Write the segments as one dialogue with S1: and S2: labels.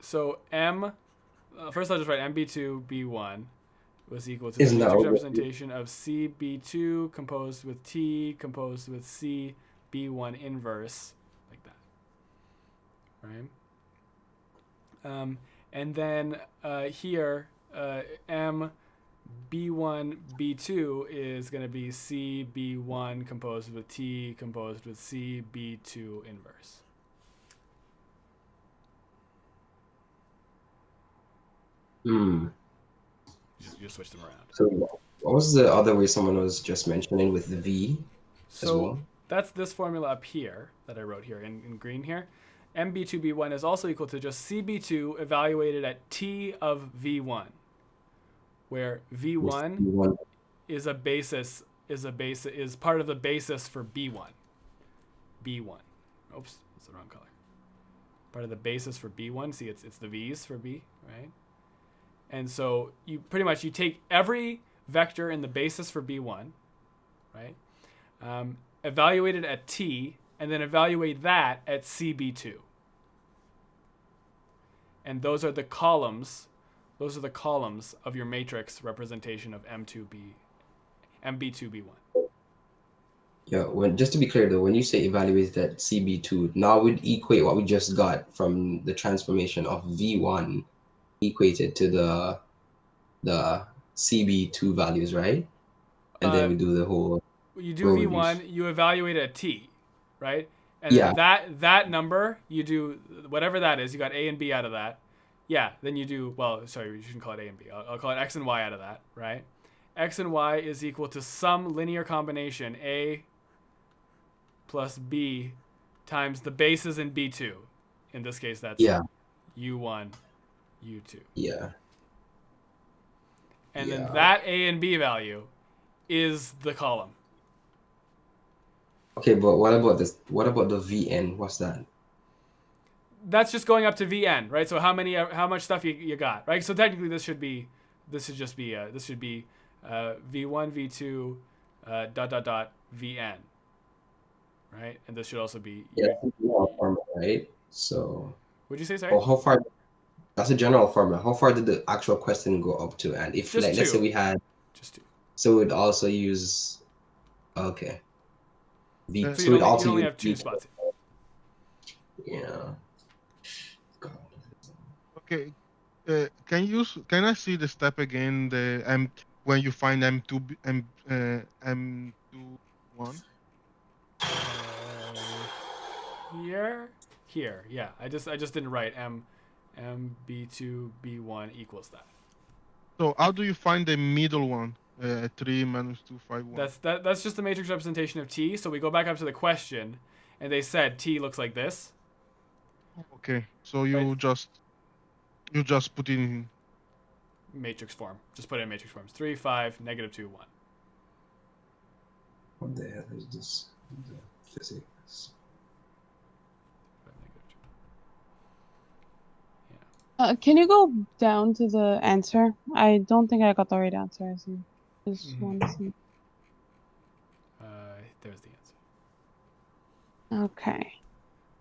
S1: So M, uh, first I'll just write MB2 B1 was equal to
S2: Isn't
S1: the
S2: that
S1: acoustic
S2: what we-
S1: representation of CB2 composed with T composed with CB1 inverse, like that. Right? Um, and then uh, here, uh, M B1 B2 is going to be CB1 composed with T composed with CB2 inverse.
S2: Hmm.
S1: You just, you just switch them around.
S2: So what was the other way someone was just mentioning with the V as
S1: So
S2: well?
S1: that's this formula up here that I wrote here in, in green here. MB2B1 is also equal to just CB2 evaluated at T of V1, where V1
S2: One.
S1: is a basis is a base is part of the basis for B1. B1. Oops, it's the wrong color. Part of the basis for B1. See, it's it's the V's for B, right? And so you pretty much you take every vector in the basis for B1, right? Um, evaluate it at T, and then evaluate that at CB2. And those are the columns those are the columns of your matrix representation of M2B, MB2B1.
S2: Yeah, when just to be clear though, when you say evaluate that CB2, now we would equate what we just got from the transformation of V1 equated to the the CB2 values, right? And
S1: Uh,
S2: then we do the whole
S1: You do
S2: Where would you
S1: V1, you evaluate a T, right? And
S2: Yeah.
S1: that that number, you do whatever that is. You got A and B out of that. Yeah. Then you do well. Sorry, you shouldn't call it A and B. I'll, I'll call it X and Y out of that, right? X and Y is equal to some linear combination A plus B times the bases in B2. In this case, that's
S2: Yeah.
S1: U1, U2.
S2: yeah.
S1: and
S2: Yeah.
S1: then that a and b value is the column
S2: Okay, but what about this what about the VN? What's that?
S1: that's just going up to vn right so how many how much stuff you, you got right so technically this should be this should just be uh, this should be uh, v1 v2 uh, dot dot dot vn right and this should also be
S2: Yeah, that's a general formula, right? So
S1: would you say sorry
S2: or how far that's a general formula. How far did the actual question go up to? And if
S1: Just
S2: like let's
S1: two.
S2: say we had
S1: just two
S2: So we'd also use. Okay. V
S3: Yeah,
S1: so
S3: So
S1: you
S2: we'd
S1: only, you only
S2: use
S1: have two
S2: V-
S1: spots
S2: Yeah. God.
S3: Okay. Uh, can you s- can I see the step again? The M when you find M two M uh, M two one.
S1: Uh, here here yeah i just i just didn't write m m b2 b1 equals that
S3: So how do you find the middle one? Uh, three minus two five one.
S1: That's that, that's just the matrix representation of T. So we go back up to the question, and they said T looks like this.
S3: okay. So you
S1: Right.
S3: just you just put it in.
S1: Matrix form. Just put it in matrix forms. Three, five, negative two, one.
S2: What the hell is this? The physics.
S1: Five, negative two.
S4: Uh, can you go down to the answer? I don't think I got the right answer. I see. Just
S1: Mhm.
S4: want to see.
S1: Uh, there's the answer.
S4: Okay.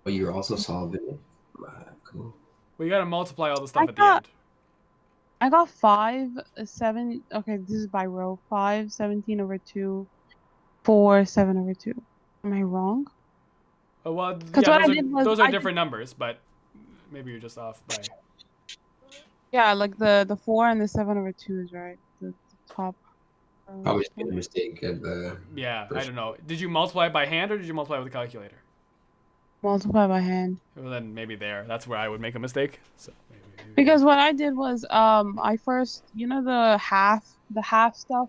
S2: But you're also solving it. Ah, cool.
S1: We gotta multiply all the stuff
S4: I
S1: at
S4: thought-
S1: the end.
S4: I got five, uh, seven. Okay, this is by row. Five, 17 over two, four, seven over two. Am I wrong?
S1: Oh, well,
S4: what
S1: yeah,
S4: I
S1: those are,
S4: did was
S1: those are
S4: I did-
S1: different numbers, but maybe you're just off by.
S4: Yeah, like the the four and the seven over two is right. The, the top. row.
S2: Probably just made a mistake at the.
S1: Yeah, I don't know. Did you multiply by hand or did you multiply with a calculator?
S4: multiply by hand.
S1: Well, then maybe there. That's where I would make a mistake. So maybe, maybe-
S4: Because what I did was, um, I first, you know, the half, the half stuff,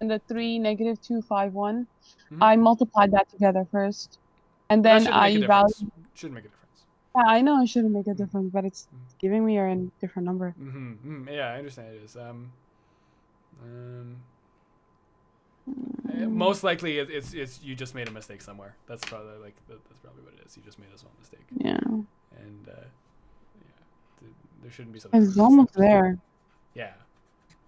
S4: and the three negative two five one.
S1: Mhm.
S4: I multiplied that together first, and
S1: That
S4: then
S1: shouldn't make a
S4: I
S1: difference.
S4: valued.
S1: Shouldn't make a difference.
S4: Yeah, I know it shouldn't make a difference, but it's
S1: Mhm.
S4: giving me a ran- different number.
S1: hmm Yeah, I understand it is. Um, um,
S4: Mm.
S1: eh, most likely it, it's it's you just made a mistake somewhere. That's probably like that, that's probably what it is. You just made a small mistake,
S4: Yeah,
S1: and uh, yeah, th- there shouldn't be something.
S4: it's almost there.
S1: Yeah,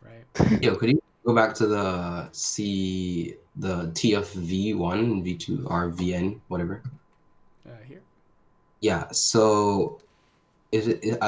S1: right.
S2: Yo, could you go back to the C, the T of V1, V2, or VN, whatever?
S1: Uh, here.
S2: Yeah. So, is it?